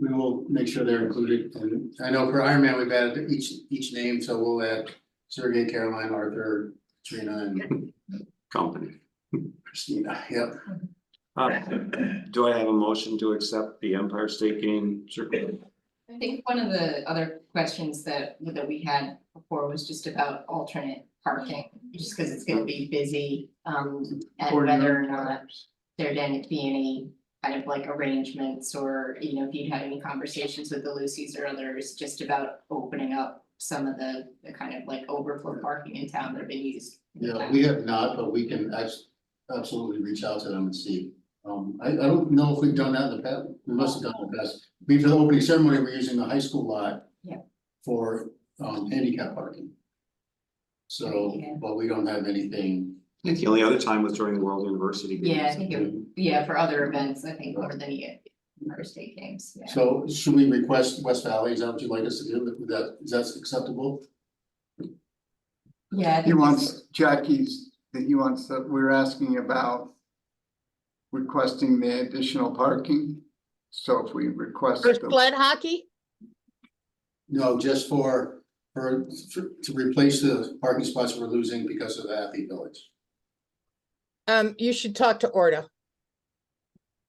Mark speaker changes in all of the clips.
Speaker 1: we will make sure they're included, and I know for Iron Man, we've added each, each name, so we'll add Sergey, Caroline, Arthur, Trina, and
Speaker 2: company.
Speaker 1: Christina, yep.
Speaker 2: Uh, do I have a motion to accept the Empire State Game Circle?
Speaker 3: I think one of the other questions that that we had before was just about alternate parking, just because it's gonna be busy. Um, and whether or not there'd end up being any kind of like arrangements or, you know, if you'd had any conversations with the Lucy's or others, just about opening up some of the the kind of like overflow parking in town that have been used. in the
Speaker 1: Yeah,
Speaker 3: past.
Speaker 1: we have not, but we can abs- absolutely reach out to them and see. Um, I, I don't know if we've done that in the past, we must have done it in the past, I mean, for the opening ceremony, we're using the high school lot.
Speaker 3: Yeah.
Speaker 1: For, um, handicap parking. So,
Speaker 3: Yeah.
Speaker 1: but we don't have anything.
Speaker 2: I think the only other time was during the World University Games.
Speaker 3: Yeah, I think it, yeah, for other events, I think more than you, first day games, yeah.
Speaker 1: So should we request West Valley, is that what you'd like us to do, Would that, is that acceptable?
Speaker 3: Yeah. I
Speaker 4: He
Speaker 3: think
Speaker 4: wants Jackie's, that he wants that we're asking about. Requesting the additional parking, so if we request.
Speaker 5: For
Speaker 4: the-
Speaker 5: sled hockey?
Speaker 1: No, just for, for, to replace the parking spots we're losing because of the athlete village,
Speaker 5: Um, you should talk to Orta.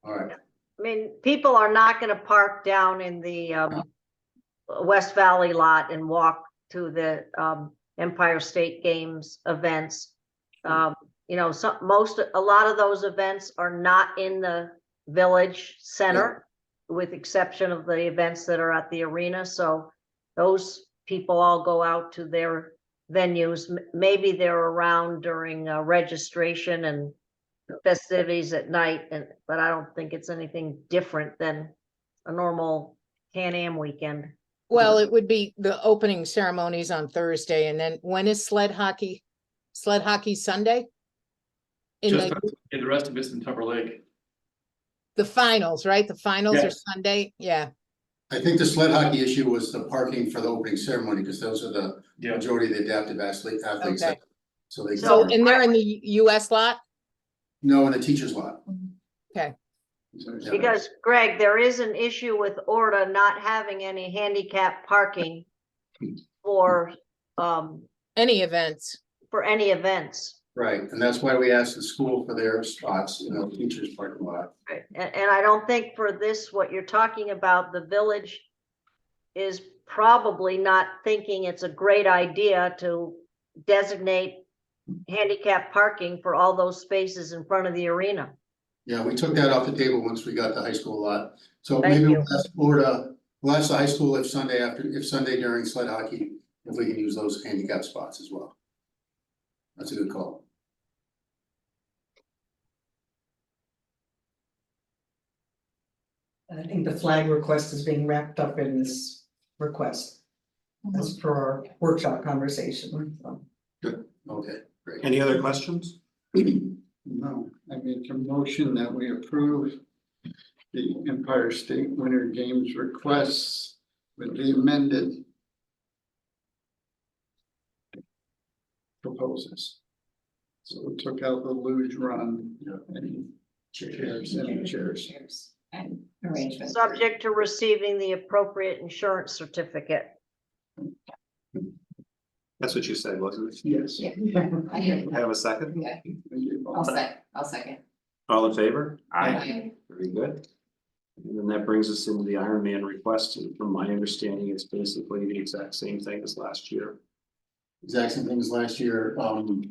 Speaker 1: all right,
Speaker 6: I mean, people are not gonna park down in the um West Valley lot and walk to the um Empire State Games events. Um, you know, some, most, a lot of those events are not in the village center. With exception of the events that are at the arena, so those people all go out to their venues. M- Maybe they're around during uh, registration and festivities at night and, but I don't think it's anything different than a normal Can-Am weekend.
Speaker 5: Well, it would be the opening ceremonies on Thursday and then when is sled hockey? Sled hockey Sunday? In
Speaker 7: Just,
Speaker 5: the,
Speaker 7: and the rest of it's in Tupper Lake.
Speaker 5: the finals, right? The finals
Speaker 7: Yeah.
Speaker 5: are Sunday, yeah.
Speaker 1: I think the sled hockey issue was the parking for the opening ceremony, because those are the
Speaker 7: Yeah.
Speaker 1: majority of the adaptive athlete athletes.
Speaker 5: Okay.
Speaker 1: So they,
Speaker 6: So-
Speaker 5: So, and they're in the U- US lot?
Speaker 1: no, in the teacher's lot, Yeah.
Speaker 6: Because Greg, there is an issue with Orta not having any handicap parking for, um,
Speaker 5: Any events?
Speaker 6: for any events.
Speaker 1: right, and that's why we asked the school for their spots, you know, teachers parking lot.
Speaker 6: Right, and, and I don't think for this, what you're talking about, the village is probably not thinking it's a great idea to designate handicap parking for all those spaces in front of the arena.
Speaker 1: Yeah, we took that off the table once we got the high school lot, so
Speaker 6: Thank
Speaker 1: maybe
Speaker 6: you.
Speaker 1: we'll ask Florida, we'll ask the high school if Sunday after, if Sunday during sled hockey, if we can use those handicap spots as well. That's a good call.
Speaker 8: I think the flag request is being wrapped up in this request, as per our workshop conversation, so.
Speaker 1: Okay, great.
Speaker 2: Any other questions?
Speaker 4: No, I make a motion that we approve the Empire State Winter Games requests with the amended. Proposals. So we took out the luge run
Speaker 1: Yeah.
Speaker 4: and chairs and chairs.
Speaker 3: Chairs And arrangements.
Speaker 6: Subject to receiving the appropriate insurance certificate.
Speaker 2: That's what you said, wasn't it?
Speaker 4: Yes.
Speaker 3: Yeah. I
Speaker 4: Thank
Speaker 3: hear
Speaker 2: Have a second?
Speaker 3: Okay,
Speaker 4: you.
Speaker 3: I'll sec, I'll second.
Speaker 2: All in favor?
Speaker 3: Okay.
Speaker 2: Very good. And then that brings us into the Iron Man request, and from my understanding, it's basically the exact same thing as last year.
Speaker 1: exact same thing as last year, um.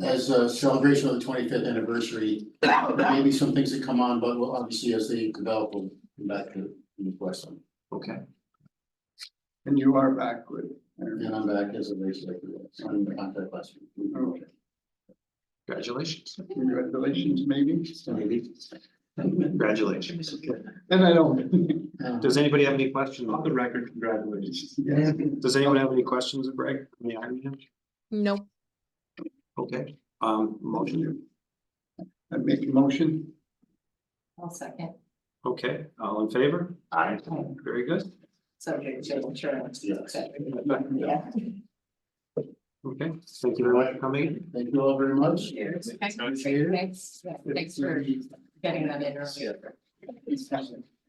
Speaker 1: As a celebration of the twenty-fifth anniversary, there may be some things that come on, but we'll obviously as they develop, we'll come back to the question.
Speaker 2: Okay,
Speaker 4: And you are back with. Iron Man.
Speaker 1: And I'm back as a race director, so I'm in contact last week.
Speaker 4: Okay.
Speaker 2: congratulations.
Speaker 4: Congratulations, maybe.
Speaker 2: Maybe. Congratulations.
Speaker 4: And I don't.
Speaker 1: Um,
Speaker 2: Does anybody have any questions?
Speaker 7: On the record, congratulations.
Speaker 4: Yeah.
Speaker 2: Does anyone have any questions, of Greg? on the Iron Man?
Speaker 5: No.
Speaker 2: Okay, um, motion.
Speaker 4: I make a motion.
Speaker 3: I'll second,
Speaker 2: Okay, all in favor? Aye. Very good.
Speaker 3: subject to insurance, et cetera.
Speaker 1: Yeah.
Speaker 3: Yeah.
Speaker 2: Okay, thank you very much for coming in.
Speaker 1: Thank you all very much.
Speaker 3: Cheers. Thanks, yeah, thanks for getting that in earlier.
Speaker 1: It's-